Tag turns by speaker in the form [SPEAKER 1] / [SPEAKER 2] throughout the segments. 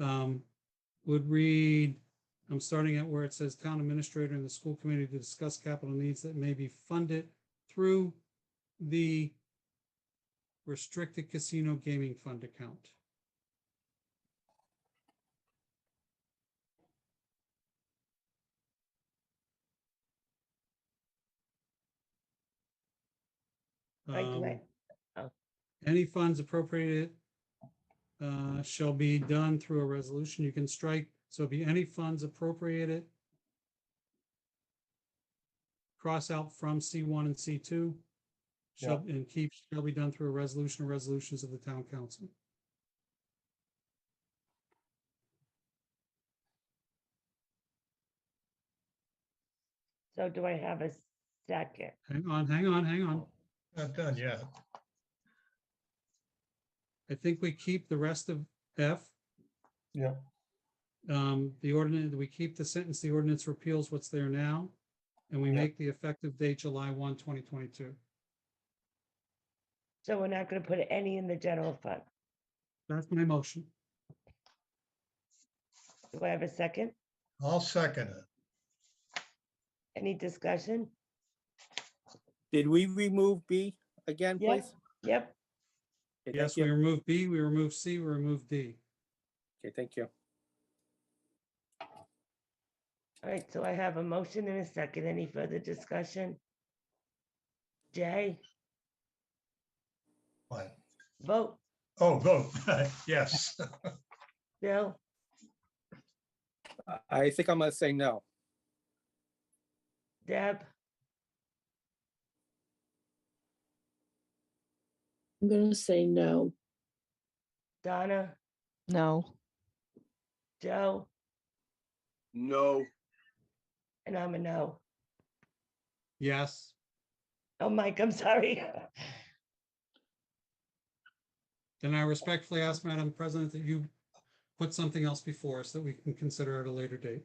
[SPEAKER 1] um, would read, I'm starting at where it says town administrator and the school committee to discuss capital needs that may be funded through the restricted casino gaming fund account.
[SPEAKER 2] Right, right.
[SPEAKER 1] Um,
[SPEAKER 2] Oh.
[SPEAKER 1] Any funds appropriated uh, shall be done through a resolution. You can strike, so be any funds appropriated. Cross out from C one and C two. Shall, and keep, shall be done through a resolution or resolutions of the town council.
[SPEAKER 2] So do I have a second?
[SPEAKER 1] Hang on, hang on, hang on.
[SPEAKER 3] Not done yet.
[SPEAKER 1] I think we keep the rest of F.
[SPEAKER 3] Yeah.
[SPEAKER 1] Um, the ordinance, we keep the sentence, the ordinance repeals what's there now. And we
[SPEAKER 3] Yeah.
[SPEAKER 1] make the effective date July 1, 2022.
[SPEAKER 2] So we're not gonna put any in the general fund.
[SPEAKER 1] That's my motion.
[SPEAKER 2] Do I have a second?
[SPEAKER 3] I'll second it.
[SPEAKER 2] Any discussion?
[SPEAKER 4] Did we remove B again,
[SPEAKER 2] Yeah.
[SPEAKER 4] please?
[SPEAKER 2] Yep,
[SPEAKER 4] Okay,
[SPEAKER 1] Yes,
[SPEAKER 4] thank
[SPEAKER 1] we
[SPEAKER 4] you.
[SPEAKER 1] remove B, we remove C, we remove D.
[SPEAKER 4] Okay, thank you.
[SPEAKER 2] all right, so I have a motion and a second. Any further discussion? Jay,
[SPEAKER 3] What?
[SPEAKER 2] vote.
[SPEAKER 3] Oh, vote. Yes.
[SPEAKER 2] Bill,
[SPEAKER 4] I- I think I'm gonna say no.
[SPEAKER 2] Deb,
[SPEAKER 5] I'm gonna say no.
[SPEAKER 2] Donna,
[SPEAKER 6] No,
[SPEAKER 2] Joe,
[SPEAKER 7] No,
[SPEAKER 2] and I'm a no.
[SPEAKER 1] Yes,
[SPEAKER 2] Oh, Mike, I'm sorry.
[SPEAKER 1] then I respectfully ask Madam President that you put something else before us that we can consider at a later date.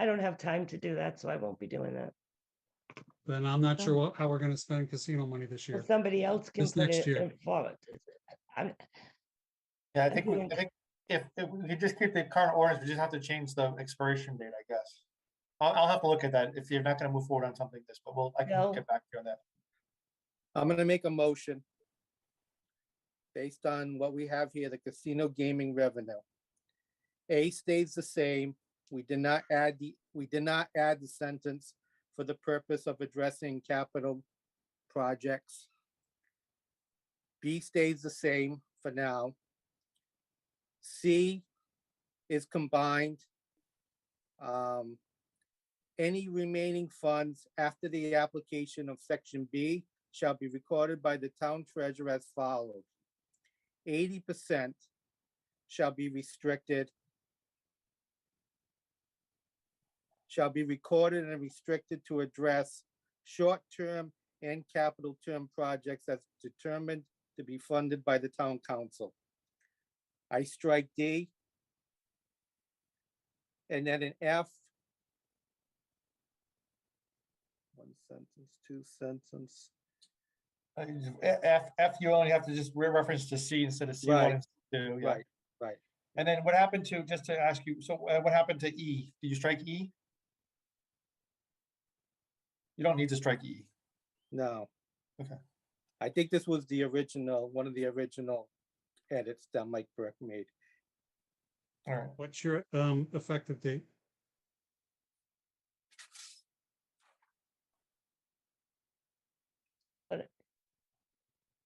[SPEAKER 2] I don't have time to do that, so I won't be doing that.
[SPEAKER 1] Then I'm not sure what, how we're gonna spend casino money this
[SPEAKER 2] Well,
[SPEAKER 1] year.
[SPEAKER 2] Somebody else can
[SPEAKER 1] This
[SPEAKER 2] put
[SPEAKER 1] next
[SPEAKER 2] it
[SPEAKER 1] year.
[SPEAKER 2] in forward. I'm,
[SPEAKER 8] Yeah, I
[SPEAKER 2] I
[SPEAKER 8] think, we- I
[SPEAKER 2] think-
[SPEAKER 8] think if, if we could just keep the current orders, we just have to change the expiration date, I guess. I'll, I'll have to look at that if you're not gonna move forward on something like this, but we'll, I
[SPEAKER 2] No.
[SPEAKER 8] can get back to you on that.
[SPEAKER 4] I'm gonna make a motion based on what we have here, the casino gaming revenue. A stays the same. We did not add the, we did not add the sentence for the purpose of addressing capital projects. B stays the same for now. C is combined. Um, Any remaining funds after the application of section B shall be recorded by the town treasurer as follows. Eighty percent shall be restricted, shall be recorded and restricted to address short-term and capital term projects as determined to be funded by the town council. I strike D. And then an F. One sentence, two sentence.
[SPEAKER 8] Uh, F, F, you only have to just re-reference to C instead of C
[SPEAKER 4] Right.
[SPEAKER 8] one and C two, yeah.
[SPEAKER 4] Right, right.
[SPEAKER 8] And then what happened to, just to ask you, so uh, what happened to E? Did you strike E? You don't need to strike E.
[SPEAKER 4] No.
[SPEAKER 8] Okay.
[SPEAKER 4] I think this was the original, one of the original edits that Mike Burke made.
[SPEAKER 8] All right,
[SPEAKER 1] What's your um effective date?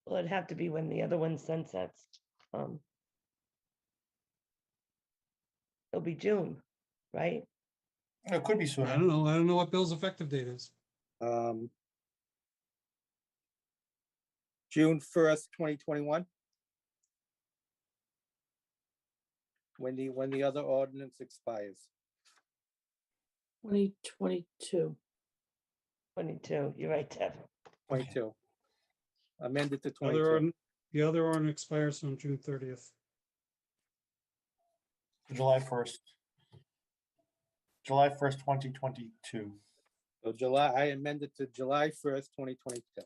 [SPEAKER 2] well, it'd have to be when the other one sunsets. Um. It'll be June, right?
[SPEAKER 8] it could be
[SPEAKER 1] I
[SPEAKER 8] sooner.
[SPEAKER 1] don't know. I don't know what Bill's effective date is.
[SPEAKER 4] Um, June first, twenty twenty-one. When the, when the other ordinance expires.
[SPEAKER 5] Twenty twenty-two.
[SPEAKER 2] Twenty-two, you're right, Deb.
[SPEAKER 4] Twenty-two. Amended to
[SPEAKER 1] Other,
[SPEAKER 4] twenty-two.
[SPEAKER 1] ordin- the other one expires on June thirtieth.
[SPEAKER 8] July first. July first, twenty twenty-two.
[SPEAKER 4] So July, I amended to July first, twenty twenty-two.